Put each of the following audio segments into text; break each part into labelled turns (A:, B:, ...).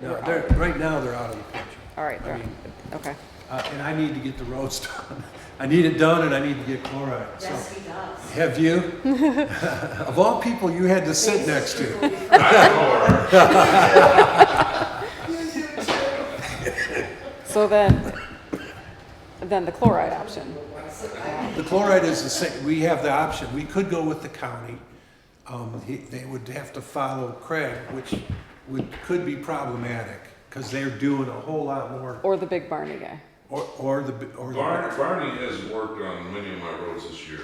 A: No, they're, right now, they're out of the picture.
B: All right,
A: I
B: they're-
A: mean,
B: okay.
A: uh, and I need to get the roads done. I need it done and I need to get chloride, so.
C: Yes, he does.
A: Have you? Of all people you had to sit next to.
B: So then, then the chloride option.
A: The chloride is the same, we have the option, we could go with the county. Um, he- they would have to follow Craig, which would, could be problematic, because they're doing a whole lot more,
B: Or the big Barney guy.
A: or, or the, bi- or the.
D: Barney, Barney has worked on many of my roads this year,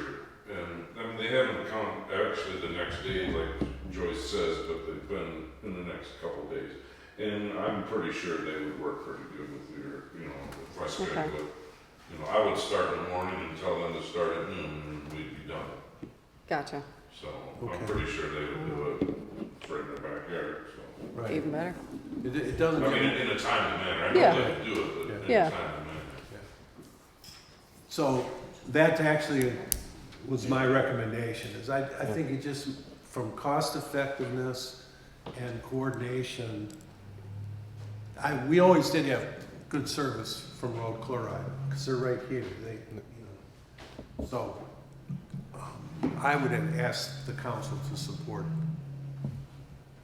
D: and, I mean, they haven't come, actually, the next day, like Joyce says, but they've been in the next couple of days. And I'm pretty sure they would work pretty good with your, you know, with my
B: Okay.
D: schedule. You know, I would start in the morning and tell them to start at noon, and we'd be done.
B: Gotcha.
D: So
A: Okay.
D: I'm pretty sure they would do it right in their backyard, so.
A: Right,
B: Even better.
A: it, it
D: I
A: doesn't.
D: mean, in in a timely manner, I
B: Yeah.
D: know they can do it, but in
B: Yeah.
D: a timely manner.
A: So that actually was my recommendation, is I, I think it just, from cost effectiveness and coordination, I, we always did have good service from Road Chloride, because they're right here, they, you know. So, um, I would have asked the council to support,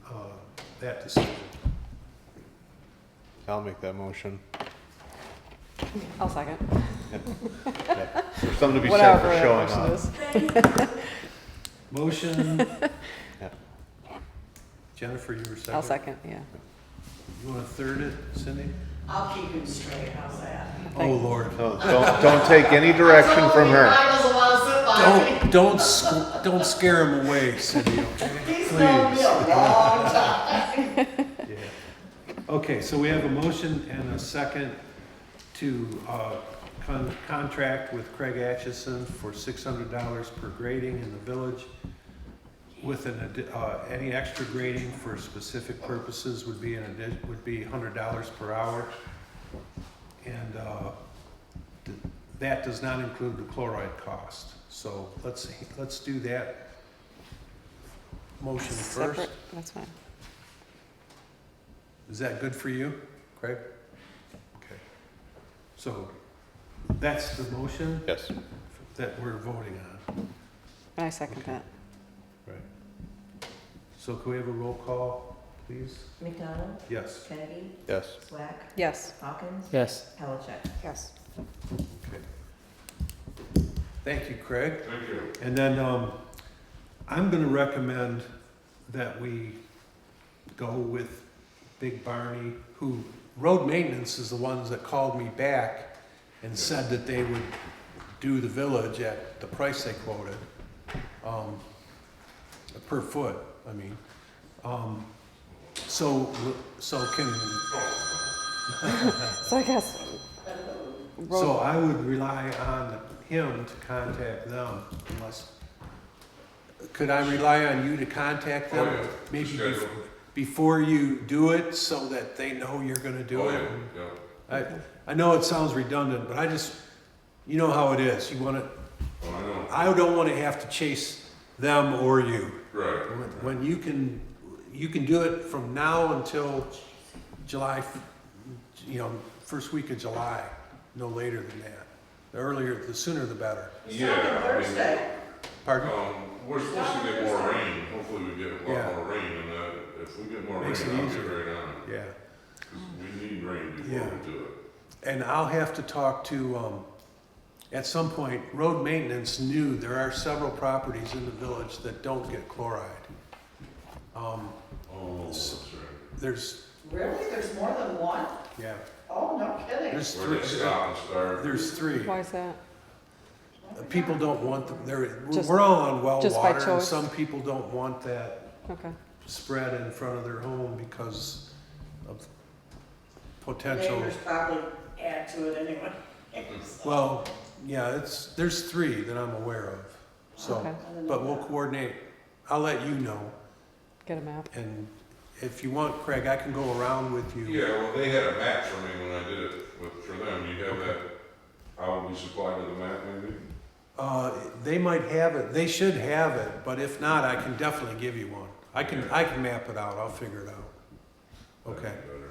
A: uh, that decision.
E: I'll make that motion.
B: I'll second.
E: There's something to be said
B: Whatever
E: for
B: that
E: showing
B: motion
E: up.
B: is.
A: Motion.
E: Yeah.
A: Jennifer, you were 2nd
B: I'll second, yeah.
A: You want to third it, Cindy?
C: I'll keep him straight, how's that?
A: Oh,
B: Thank-
A: Lord.
E: No, don't, don't take any direction from her.
C: I doesn't want to sit by me.
A: Don't, don't, sc- don't scare him away, Cindy, okay?
C: He's known me a long time.
A: Okay, so we have a motion and a second to, uh, con- contract with Craig Atchison for six hundred dollars per grading in the village. With an, addi- uh, any extra grading for specific purposes would be an addi- would be hundred dollars per hour. And, uh, th- that does not include the chloride cost, so let's, let's do that motion first.
B: Separate, that's fine.
A: Is that good for you, Craig? Okay. So that's the motion
E: Yes.
A: that we're voting on.
B: I second that.
A: So can we have a roll call, please?
F: McDonald,
A: Yes.
F: Kennedy,
E: Yes.
F: Swack,
B: Yes.
F: Hawkins,
G: Yes.
F: Pellicet.
B: Yes.
A: Okay. Thank you, Craig.
D: Thank you.
A: And then um, I'm going to recommend that we go with Big Barney, who, road maintenance is the ones that called me back and said that they would do the village at the price they quoted, um, per foot, I mean. Um, So, so can,
B: So I guess.
A: so
B: road-
A: I would rely on him to contact them unless, could I rely on you to contact them?
D: Oh, yeah.
A: Maybe
D: Schedule.
A: bef- before you do it, so that they know you're gonna do
D: Oh,
A: it?
D: yeah, yeah.
A: I, I know it sounds redundant, but I just, you know how it is, you wanna,
D: Oh, I know.
A: I don't wanna have to chase them or you.
D: Right.
A: When when you can, you can do it from now until July, f- you know, first week of July, no later than that. The earlier, the sooner the better.
D: Yeah, I mean-
C: Thursday.
A: Pardon?
D: Um, we're supposed to get more rain. Hopefully, we get a
A: Yeah.
D: lot more rain, and uh, if we get more rain,
A: Makes it
D: I'll get
A: easier.
D: right on it.
A: Yeah.
D: 'Cause We need rain before
A: Yeah.
D: we do it.
A: And I'll have to talk to, um, at some point, road maintenance knew there are several properties in the village that don't get chloride. Um,
D: Oh, that's right.
A: there's,
C: Really? There's more than one?
A: yeah,
C: Oh, no kidding.
A: there's
D: Where
A: three,
D: they stop and start.
A: there's three.
B: Why is that?
A: People don't want them, they're,
B: Just-
A: we're all on well
B: just by
A: water, and
B: choice?
A: some people don't want that
B: Okay.
A: spread in front of their home because of potential.
C: Neighbors probably add to it anyway.
A: Well, yeah, it's, there's three that I'm aware of,
B: Okay.
A: so, but we'll coordinate. I'll let you know,
B: Get a map.
A: and if you want, Craig, I can go around with you.
D: Yeah, well, they had a map for me when I did it with, for them. You have that. I will be supplied with a map, maybe.
A: Uh, they might have it, they should have it, but if not, I can definitely give you one. I can, I can map it out, I'll figure it out. Okay,
D: That'd be better.